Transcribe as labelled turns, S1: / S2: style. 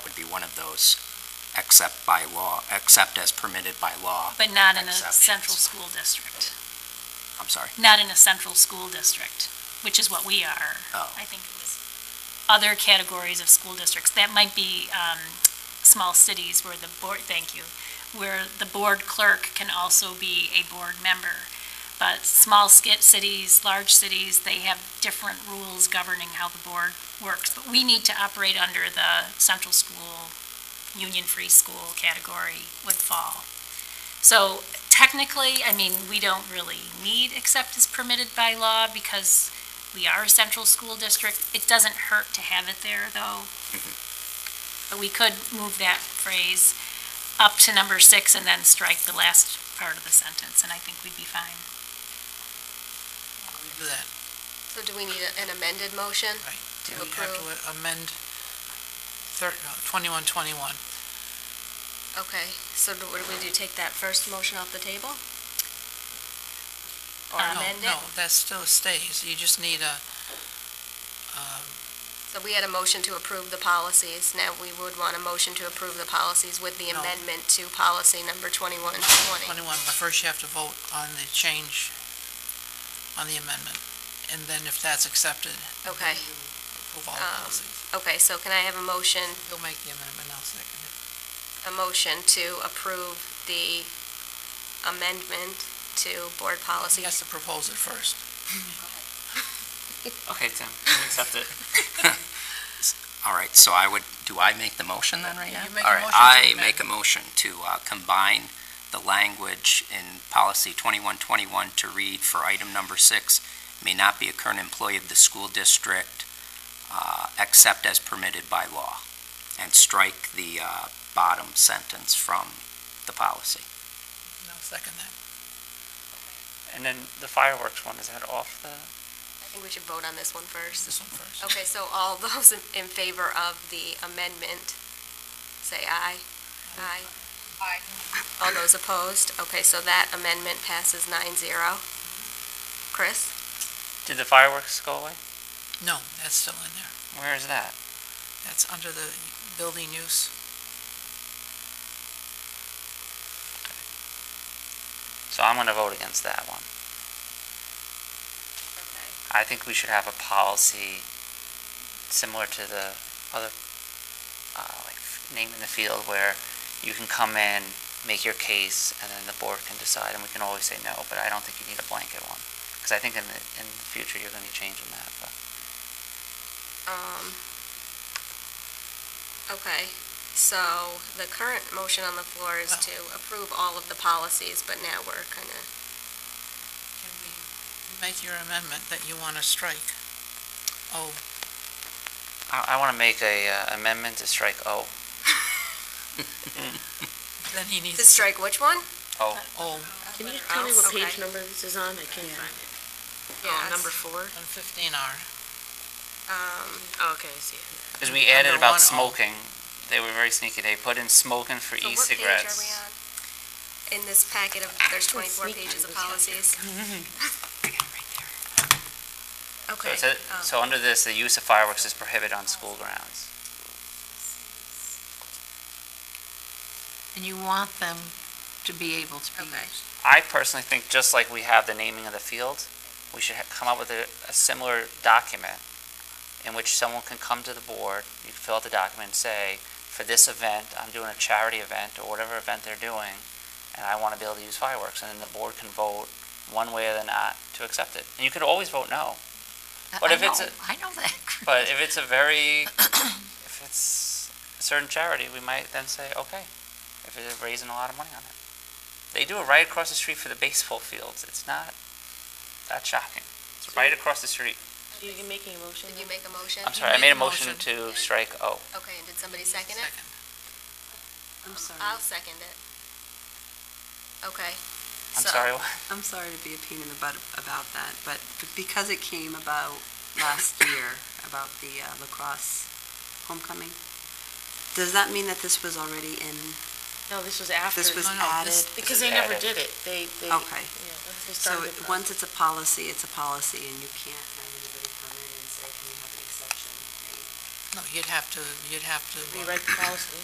S1: one of those except by law, except as permitted by law,
S2: But not in a
S1: Exceptions.
S2: central school district,
S1: I'm sorry.
S2: not in a central school district, which is what we are.
S1: Oh.
S2: I think it was other categories of school districts. That might be, um, small cities where the board, thank you, where the board clerk can also be a board member. But small skit cities, large cities, they have different rules governing how the board works. But we need to operate under the central school, union-free school category would fall. So technically, I mean, we don't really need except as permitted by law because we are a central school district. It doesn't hurt to have it there, though. But we could move that phrase up to number six and then strike the last part of the sentence, and I think we'd be fine.
S3: We do that,
S4: So do we need a- an amended motion?
S3: right?
S4: To
S3: We have to amend thir- no, 2121.
S4: Okay, so do- what do we do, take that first motion off the table? Or
S2: Uh,
S3: Oh, No,
S4: amend
S3: No,
S4: it?
S3: that still stays. You just need a, um,
S4: So we had a motion to approve the policies, now we would want a motion to approve the policies with the
S3: No.
S4: amendment to policy number 2120.
S3: 21, but first you have to vote on the change, on the amendment. And then if that's accepted,
S4: Okay,
S3: approve all
S4: Um,
S3: policies.
S4: okay, so can I have a motion,
S3: You'll make the amendment, I'll second it.
S4: a motion to approve the amendment to board
S3: He
S4: policy?
S3: has to propose it first.
S5: Okay, Tim, we accept it.
S1: All right, so I would, do I make the motion then right
S3: Yeah,
S1: now?
S3: you make a
S1: All right,
S3: motion to
S1: I
S3: amend.
S1: make a motion to uh, combine the language in policy 2121 to read for item number six, may not be a current employee of the school district, uh, except as permitted by law, and strike the uh, bottom sentence from the policy.
S3: And I'll second that.
S5: And then the fireworks one, is that off the?
S4: I think we should vote on this one first.
S3: This one first.
S4: Okay, so all those in in favor of the amendment, say aye. Aye. Aye. All those opposed? Okay, so that amendment passes nine zero. Chris?
S5: Did the fireworks go away?
S3: No, that's still in there.
S5: Where is that?
S3: That's under the building use.
S5: So I'm gonna vote against that one. I think we should have a policy similar to the other, uh, like name in the field where you can come in, make your case, and then the board can decide, and we can always say no, but I don't think you need a blanket one. Because I think in the, in the future, you're gonna be changing that, but.
S4: Um, okay, so the current motion on the floor is to approve all of the policies, but now we're kind of,
S3: Can we make your amendment that you want to strike? Oh,
S5: I, I wanna make a uh, amendment to strike O.
S3: then he needs.
S4: to strike which one?
S5: O.
S3: Oh,
S6: Can you tell me what
S4: Okay.
S6: page number this is on? I can't find it.
S4: Yes.
S6: four?
S3: on 15R.
S4: Um,
S6: Oh, okay, I see it.
S5: Because we added
S3: Under
S5: about
S3: 1O.
S5: smoking. They were very sneaky. They put in smoking for
S4: oh. so what page are we
S5: e-cigarettes.
S4: on? In this packet of, there's twenty-four pages of policies.
S5: So,
S4: Okay.
S5: it said-
S4: um,
S5: so under this, the use of fireworks is prohibited on school grounds.
S7: And you want them to be able to be
S4: Okay.
S7: used.
S5: I personally think just like we have the naming of the field, we should ha- come up with a, a similar document in which someone can come to the board, you can fill out the document and say, for this event, I'm doing a charity event or whatever event they're doing, and I want to be able to use fireworks. And then the board can vote one way or the not to accept it. And you could always vote no.
S7: I-
S5: But
S7: I
S5: if it's
S7: know-
S5: a-
S7: I know that. Chris.
S5: But if it's a very, if it's a certain charity, we might then say, okay, if they're raising a lot of money on it. They do it right across the street for the baseball fields. It's not that shocking. It's right across the street.
S6: You making a motion?
S4: Did you make a motion?
S5: I'm sorry, I made a motion to strike O.
S4: Okay, and did somebody second it?
S7: I'm
S4: I'll
S7: sorry.
S4: second it. Okay.
S5: I'm
S4: So-
S5: sorry, what?
S8: I'm sorry to be a pain in the butt about that, but because it came about last year, about the uh, lacrosse homecoming, does that mean that this was already in,
S6: No, this was after.
S8: This was
S6: No, no, this-
S8: added.
S6: Because they never
S5: Added.
S6: did it. They, they.
S8: Okay.
S6: Yeah, once they
S8: so
S6: started the
S8: it- once it's a policy, it's a policy, and you can't have anybody come in and say, can you have an exception?
S3: No, you'd have to, you'd have to.
S6: process, Rewrite the policy.